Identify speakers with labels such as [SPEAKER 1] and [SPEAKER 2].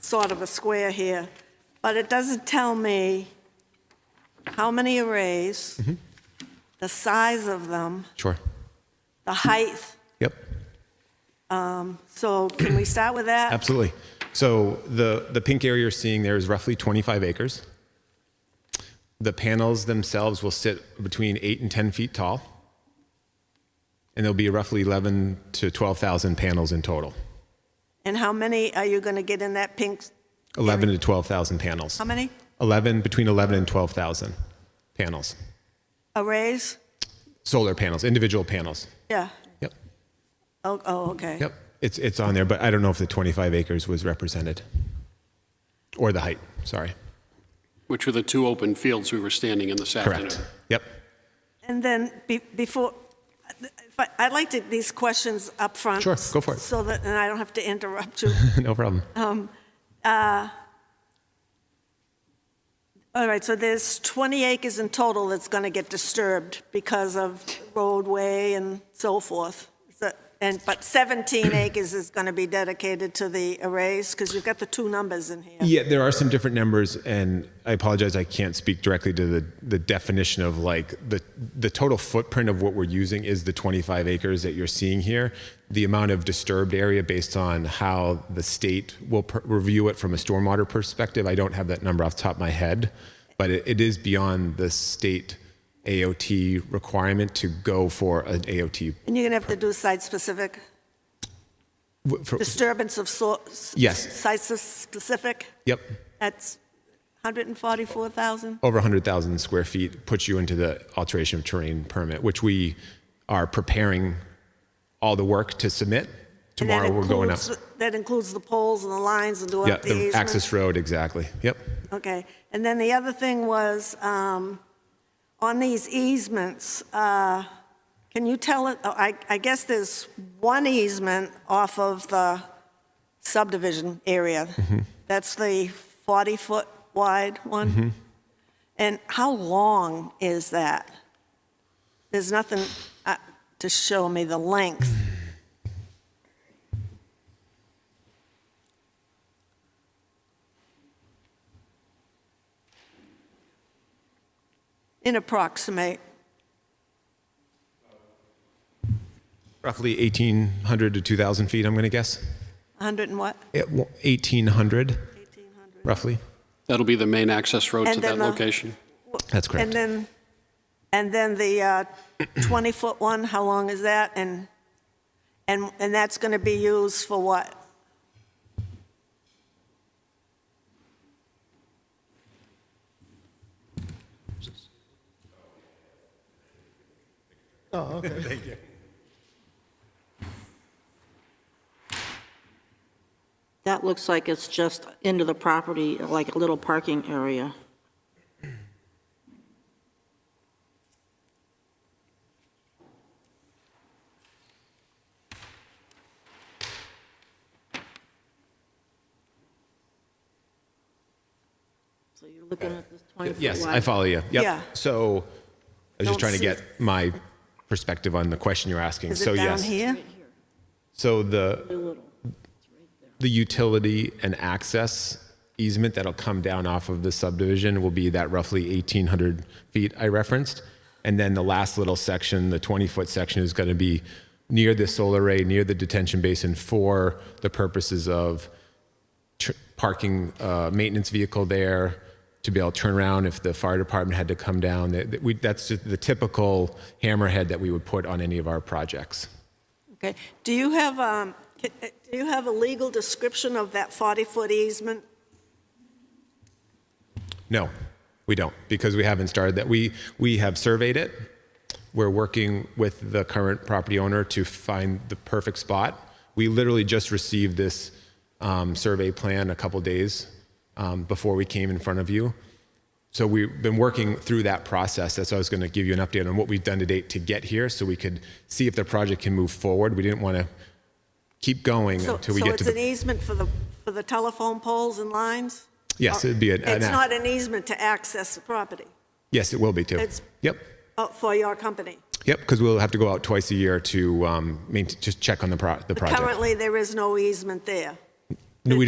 [SPEAKER 1] sort of a square here, but it doesn't tell me how many arrays,
[SPEAKER 2] Mm-hmm.
[SPEAKER 1] the size of them,
[SPEAKER 2] Sure.
[SPEAKER 1] the height.
[SPEAKER 2] Yep.
[SPEAKER 1] So can we start with that?
[SPEAKER 2] Absolutely. So the, the pink area you're seeing there is roughly 25 acres. The panels themselves will sit between eight and 10 feet tall. And there'll be roughly 11 to 12,000 panels in total.
[SPEAKER 1] And how many are you going to get in that pink?
[SPEAKER 2] 11 to 12,000 panels.
[SPEAKER 1] How many
[SPEAKER 2] 11, between 11 and 12,000 panels.
[SPEAKER 1] arrays?
[SPEAKER 2] Solar panels, individual panels.
[SPEAKER 1] Yeah.
[SPEAKER 2] Yep.
[SPEAKER 1] Oh, oh, okay.
[SPEAKER 2] Yep. It's, it's on there, but I don't know if the 25 acres was represented or the height. Sorry.
[SPEAKER 3] Which were the two open fields we were standing in this afternoon.
[SPEAKER 2] Correct. Yep.
[SPEAKER 1] And then be- before, if I- I'd like to, these questions up front.
[SPEAKER 2] Sure, go for it.
[SPEAKER 1] So that, and I don't have to interrupt you.
[SPEAKER 2] no problem.
[SPEAKER 1] All right, so there's 20 acres in total that's going to get disturbed because of roadway and so forth. So- And, but 17 acres is going to be dedicated to the arrays, because you've got the two numbers in here.
[SPEAKER 2] Yeah, there are some different numbers, and I apologize, I can't speak directly to the, the definition of like the the total footprint of what we're using is the 25 acres that you're seeing here. The amount of disturbed area based on how the state will per- review it from a stormwater perspective, I don't have that number off the top of my head, but it, it is beyond the state AOT requirement to go for an AOT.
[SPEAKER 1] And you're going to have to do site-specific,
[SPEAKER 2] w- for-
[SPEAKER 1] disturbance of sort.
[SPEAKER 2] Yes.
[SPEAKER 1] Site-specific,
[SPEAKER 2] yep,
[SPEAKER 1] that's 144,000?
[SPEAKER 2] over 100,000 square feet puts you into the alteration of terrain permit, which we are preparing all the work to submit.
[SPEAKER 1] And that
[SPEAKER 2] Tomorrow we're going up.
[SPEAKER 1] includes- That includes the poles and the lines and
[SPEAKER 2] Yeah,
[SPEAKER 1] what the
[SPEAKER 2] the
[SPEAKER 1] easement?
[SPEAKER 2] access road, exactly. Yep.
[SPEAKER 1] Okay, and then the other thing was, um, on these easements, uh, can you tell, it? oh, I I guess there's one easement off of the subdivision area. That's the 40-foot wide one? And how long is that? There's nothing uh, to show me the length. In approximate,
[SPEAKER 2] Roughly 1,800 to 2,000 feet, I'm going to guess.
[SPEAKER 1] 100 and what?
[SPEAKER 2] It wa- 1,800
[SPEAKER 1] 1,800.
[SPEAKER 2] roughly.
[SPEAKER 3] That'll be the main access road
[SPEAKER 1] And
[SPEAKER 3] to
[SPEAKER 1] then
[SPEAKER 3] that
[SPEAKER 1] the-
[SPEAKER 3] location.
[SPEAKER 2] That's
[SPEAKER 1] And
[SPEAKER 2] correct.
[SPEAKER 1] then, and then the uh, 20-foot one, how long is that? And, and, and that's going to be used for what?
[SPEAKER 4] That looks like it's just into the property, like a little parking area. So you're looking at this 20 foot
[SPEAKER 2] Yes,
[SPEAKER 4] wide.
[SPEAKER 2] I follow you. Yep.
[SPEAKER 1] Yeah.
[SPEAKER 2] So I was
[SPEAKER 1] Don't
[SPEAKER 2] just trying to
[SPEAKER 1] see-
[SPEAKER 2] get my perspective on the question you're asking.
[SPEAKER 1] Is
[SPEAKER 2] So
[SPEAKER 1] it down
[SPEAKER 2] yes.
[SPEAKER 1] here?
[SPEAKER 2] So the
[SPEAKER 4] A little.
[SPEAKER 2] the utility and access easement that'll come down off of the subdivision will be that roughly 1,800 feet I referenced. And then the last little section, the 20-foot section, is going to be near the solar array, near the detention basin for the purposes of tr- parking uh, maintenance vehicle there to be able to turn around if the fire department had to come down. That- that we- That's just the typical hammerhead that we would put on any of our projects.
[SPEAKER 1] Okay. Do you have, um, c- uh, do you have a legal description of that 40-foot easement?
[SPEAKER 2] No, we don't, because we haven't started that. We, we have surveyed it. We're working with the current property owner to find the perfect spot. We literally just received this um, survey plan a couple days um, before we came in front of you. So we've been working through that process. That's why I was going to give you an update on what we've done to date to get here so we could see if the project can move forward. We didn't want to keep going
[SPEAKER 1] So-
[SPEAKER 2] until we get to
[SPEAKER 1] So it's an
[SPEAKER 2] the.
[SPEAKER 1] easement for the, for the telephone poles and lines?
[SPEAKER 2] Yes, it'd be an. an
[SPEAKER 1] e- It's
[SPEAKER 2] act.
[SPEAKER 1] not an easement to access the property,
[SPEAKER 2] Yes, it will be too.
[SPEAKER 1] it's-
[SPEAKER 2] Yep.
[SPEAKER 1] oh, for your company?
[SPEAKER 2] Yep, because we'll have to go out twice a year to um, main- just check on the pro- the project.
[SPEAKER 1] Currently, there is no easement there.
[SPEAKER 2] No, we